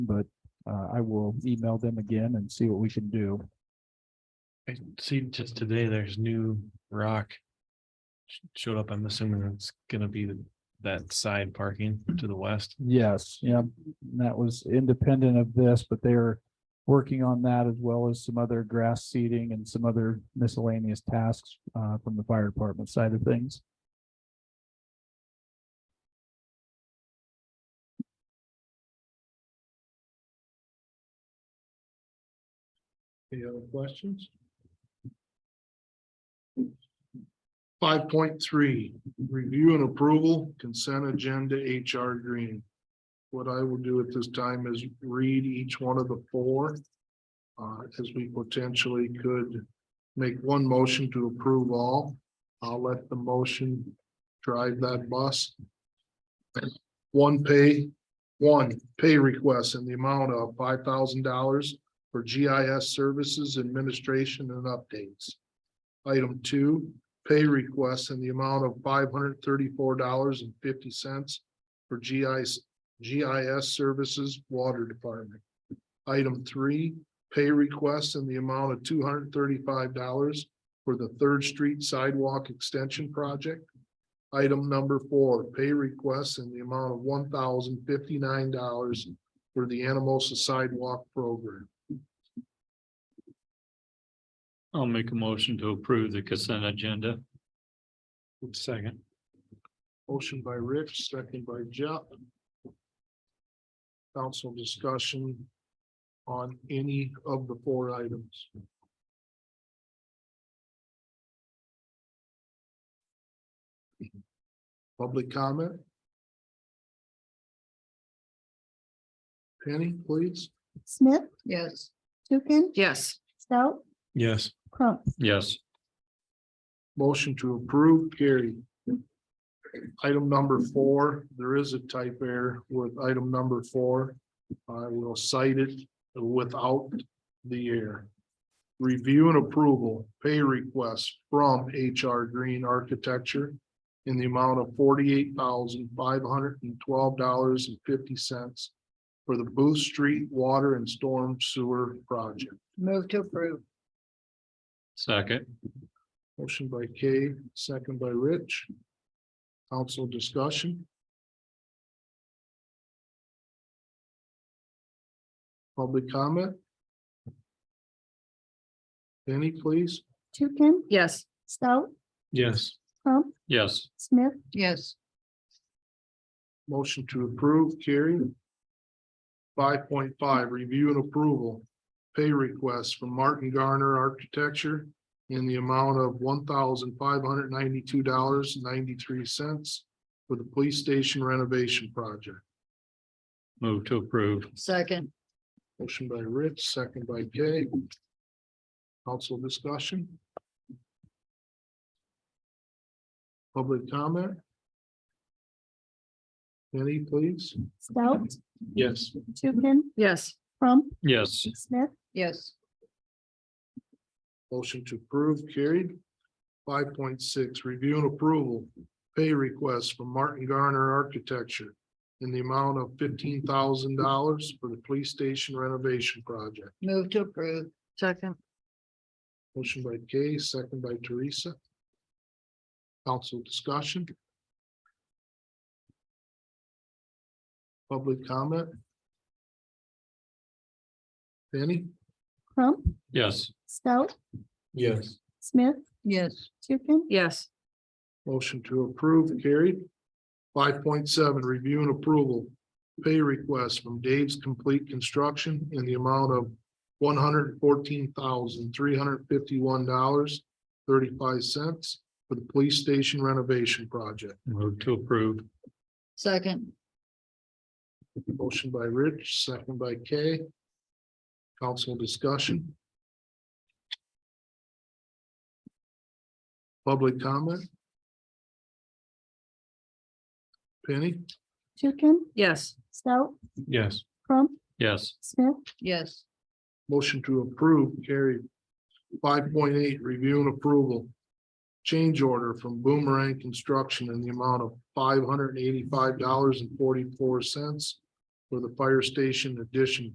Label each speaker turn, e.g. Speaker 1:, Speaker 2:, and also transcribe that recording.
Speaker 1: But uh, I will email them again and see what we can do.
Speaker 2: I see just today, there's new rock. sh- Showed up, I'm assuming it's gonna be the- that side parking to the west.
Speaker 1: Yes, yeah, and that was independent of this, but they're working on that as well as some other grass seeding and some other miscellaneous tasks uh from the fire department side of things.
Speaker 3: Any other questions? Five point three, review and approval consent agenda HR Green. What I will do at this time is read each one of the four. uh, as we potentially could make one motion to approve all. I'll let the motion drive that bus. One pay, one pay request in the amount of five thousand dollars for GIS services administration and updates. Item two, pay requests in the amount of five hundred thirty-four dollars and fifty cents for GIS, GIS services water department. Item three, pay requests in the amount of two hundred thirty-five dollars for the Third Street Sidewalk Extension Project. Item number four, pay requests in the amount of one thousand fifty-nine dollars for the Anamosa Sidewalk Program.
Speaker 4: I'll make a motion to approve the consent agenda. Second.
Speaker 3: Motion by Rich, second by Jeff. Council discussion on any of the four items. Public comment? Penny, please.
Speaker 5: Smith,
Speaker 6: Yes.
Speaker 5: Tukin,
Speaker 6: Yes.
Speaker 5: Stout,
Speaker 2: Yes,
Speaker 5: Crump.
Speaker 4: Yes,
Speaker 3: Motion to approve, carried. Item number four, there is a type error with item number four. I will cite it without the error. Review and approval, pay request from HR Green Architecture in the amount of forty-eight thousand five hundred and twelve dollars and fifty cents for the Booth Street Water and Storm Sewer Project.
Speaker 6: Move to approve.
Speaker 4: second.
Speaker 3: Motion by Kay, second by Rich. Council discussion. Public comment. Penny, please.
Speaker 5: Tukin,
Speaker 6: Yes.
Speaker 5: Stout,
Speaker 2: yes,
Speaker 5: Crump,
Speaker 4: Yes,
Speaker 5: Smith,
Speaker 6: Yes.
Speaker 3: Motion to approve, carried. Five point five, review and approval. Pay request from Martin Garner Architecture in the amount of one thousand five hundred ninety-two dollars ninety-three cents for the police station renovation project.
Speaker 4: move to approve.
Speaker 6: Second.
Speaker 3: Motion by Rich, second by Kay. Council discussion. Public comment. Penny, please.
Speaker 5: Stout,
Speaker 3: Yes.
Speaker 5: Tukin,
Speaker 6: Yes.
Speaker 5: Crump,
Speaker 4: Yes,
Speaker 5: Smith,
Speaker 6: Yes.
Speaker 3: Motion to approve carried. Five point six, review and approval, pay request from Martin Garner Architecture in the amount of fifteen thousand dollars for the police station renovation project.
Speaker 6: Move to approve. Second.
Speaker 3: Motion by Kay, second by Teresa. Council discussion. Public comment. Penny?
Speaker 5: Crump,
Speaker 4: yes,
Speaker 5: Stout,
Speaker 3: Yes.
Speaker 5: Smith,
Speaker 6: Yes.
Speaker 5: Tukin,
Speaker 6: Yes.
Speaker 3: Motion to approve carried. Five point seven, review and approval. Pay request from Dave's Complete Construction in the amount of one hundred fourteen thousand, three hundred fifty-one dollars, thirty-five cents for the police station renovation project.
Speaker 4: move to approve.
Speaker 6: Second.
Speaker 3: Motion by Rich, second by Kay. Council discussion. Public comment. Penny?
Speaker 5: Tukin,
Speaker 6: Yes.
Speaker 5: Stout,
Speaker 2: yes,
Speaker 5: Crump,
Speaker 4: Yes,
Speaker 5: Smith,
Speaker 6: Yes.
Speaker 3: Motion to approve carried. Five point eight, review and approval. Change order from Boomerang Construction in the amount of five hundred and eighty-five dollars and forty-four cents for the fire station addition